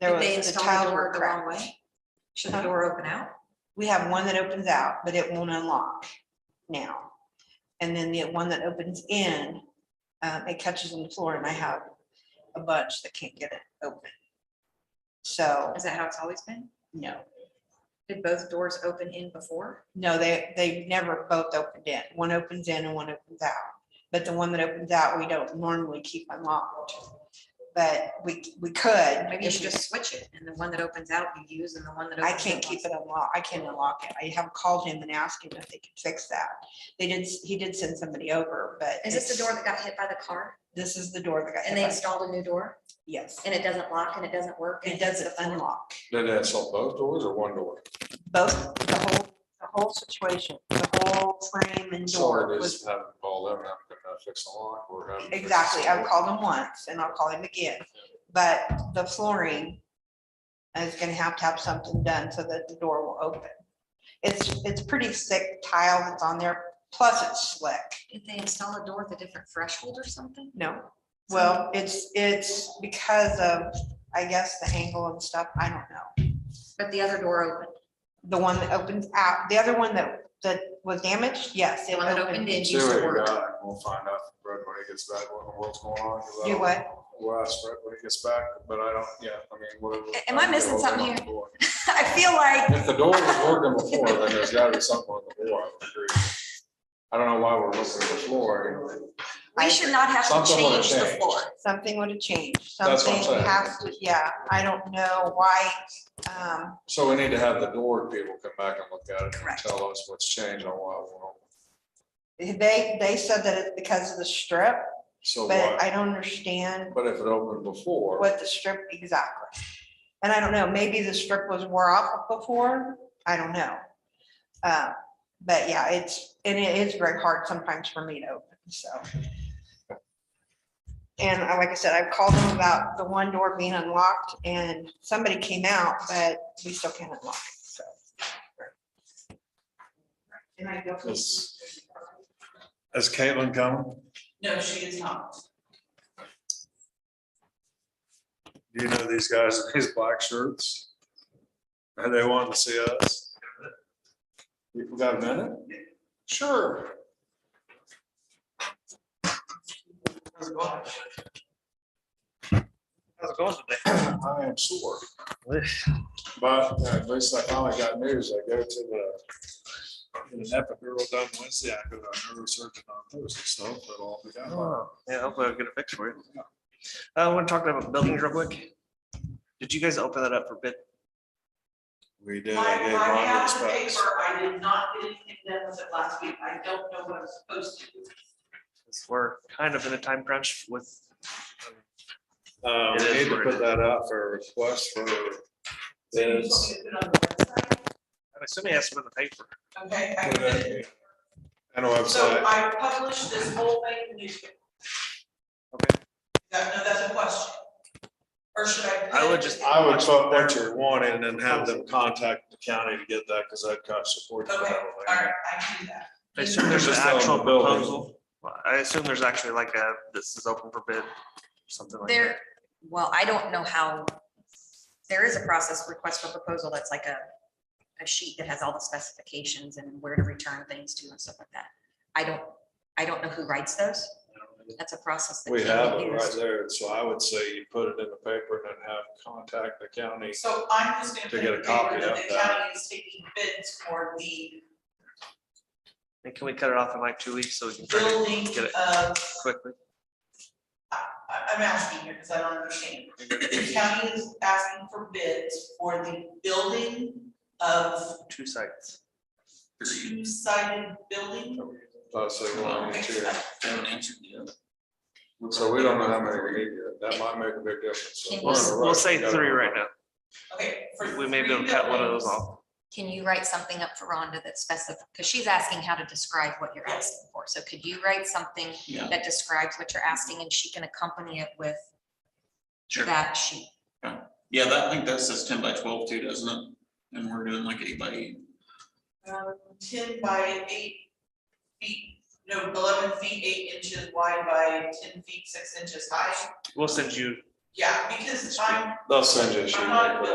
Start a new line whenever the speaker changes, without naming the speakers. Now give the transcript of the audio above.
There
Did they
was the
install the
tiles
door
were
the wrong
cracked.
way? Should the door open out?
We have one that opens out, but it won't unlock now. And then the one that opens in, um, it catches on the floor and I have a bunch that can't get it open. So,
Is that how it's always been?
no,
Did both doors open in before?
no, they, they never both opened in. One opens in and one opens out. But the one that opens out, we don't normally keep unlocked. But we, we could.
Maybe you
if
should
we-
just switch it and the one that opens out you use and the one that.
I
opens in
can't keep
locks.
it unlocked. I can't unlock it. I have called him and asked him if they could fix that. They did, s- he did send somebody over, but.
Is this the
it's-
door that got hit by the car
This is the door that got.
and
hit
they
by-
installed a new door
Yes,
and it doesn't lock and it doesn't work? and
it
hits the
doesn't
floor?
unlock.
Did it solve both doors or one door?
Both, the whole, the whole situation, the whole frame and
So
door
it
was.
is having all them, having to fix the lock or having. to fix the
Exactly. I've
door.
called him once and I'll call him again, but the flooring is gonna have to have something done so that the door will open. It's, it's pretty thick tile that's on there, plus it's slick.
Did they install a door with a different threshold or something?
No, well, it's, it's because of, I guess, the angle and stuff, I don't know.
But the other door opened.
The one that opens out, the other one that, that was damaged, yes.
The
it
one that
opened.
opened in
See
used
what
to
you
work.
got, and we'll find out from Brett when he gets back, what, what's going on. 'cause I
You
don't-
what?
We'll ask Brett when he gets back, but I don't, yeah, I mean, whatever.
Am I missing
don't know
something
about the door.
I feel like.
If the door was working before, then there's gotta be something on the floor, I would agree. I don't know why we're looking at the floor.
We should not have to
Something would've
change the
changed.
floor.
Something would have changed,
That's what
something
I'm saying.
has to, yeah, I don't know why, um,
So we need to have the door people come back and look at it and
Correct.
tell us what's changed and why. we're not.
they, they said that it's because of the strip,
So
but
why,
I don't understand
but if it opened before.
what the strip exactly. And I don't know, maybe the strip was wore off before, I don't know. Uh, But yeah, it's, and it is very hard sometimes for me to open, so. And I- like I said, I've called them about the one door being unlocked and somebody came out, but we still can't unlock it, so. And I go,
Is is Caitlin coming?
No, she is not.
Do you know these guys in these black shirts? Are they wanting to see us? You got a minute? Sure. How's it going today? I am sore. But uh, at least I finally got news. I go to the get an epidural done Wednesday. I go to a neurosurgeon on Thursday, so hopefully it'll all be done.
Oh, Yeah, hopefully I'll get a fix for you. I want to talk about buildings real quick. Did you guys open that up for bid?
We
I,
did. I gave
I
Ron the
have the
specs.
paper, I did not get anything done with it last week, I don't know what I'm supposed to do.
Since We're kind of in a time crunch with,
Uh,
It
we
is
need to
what it
put that out for a request for
So you told
bids.
me to put it on the website,
I'm assuming that's in the paper.
Okay, I
Put
put it-
it And a
so
website,
I published this whole thing in the newspaper,
Okay.
that, no, that's a question. Or should I? put
I would
it-
just-
I would put what you're wanting and then have them contact the county to get that, because that cost support. for
Okay,
that
all
one.
right, I can do that,
I assume there's an
Just on the
actual
building.
proposal. I assume there's actually like a, this is open for bid, something like
There,
that.
well, I don't know how, there is a process request for proposal that's like a, a sheet that has all the specifications and where to return things to and stuff like that. I don't, I don't know who writes those. That's a process. that
We
can be
have it right
used.
there, so I would say you put it in the paper and then have contact the county.
so I'm just gonna.
To
put
get a
in the
copy
paper that
of
The
that.
county is taking bids for the
And can we cut it off in like two weeks so we can try to
building
get it
of
quickly?
I, I'm asking here because I don't understand. The county is asking for bids for the building of
Two sites.
two-sided building.
I'd say one and two.
So
So we don't know how many we need yet. That might make a big difference. So
Can
we're in a
you-
rush.
We'll say
We gotta-
three right now.
Okay. for
We may be able to
three
cut one of those
buildings,
off.
Can you write something up for Rhonda that's specific, because she's asking how to describe what you're asking for. So could you write something
Yeah.
that describes what you're asking and she can accompany it with
Sure.
that sheet?
Yeah, that, I think that says ten by twelve too, doesn't it? And we're doing like eight by eight.
um, Ten by eight feet, no, eleven feet, eight inches wide by ten feet, six inches high.
We'll send you
yeah, because I'm,
They'll send you a sheet. Uh-huh.
I'm not a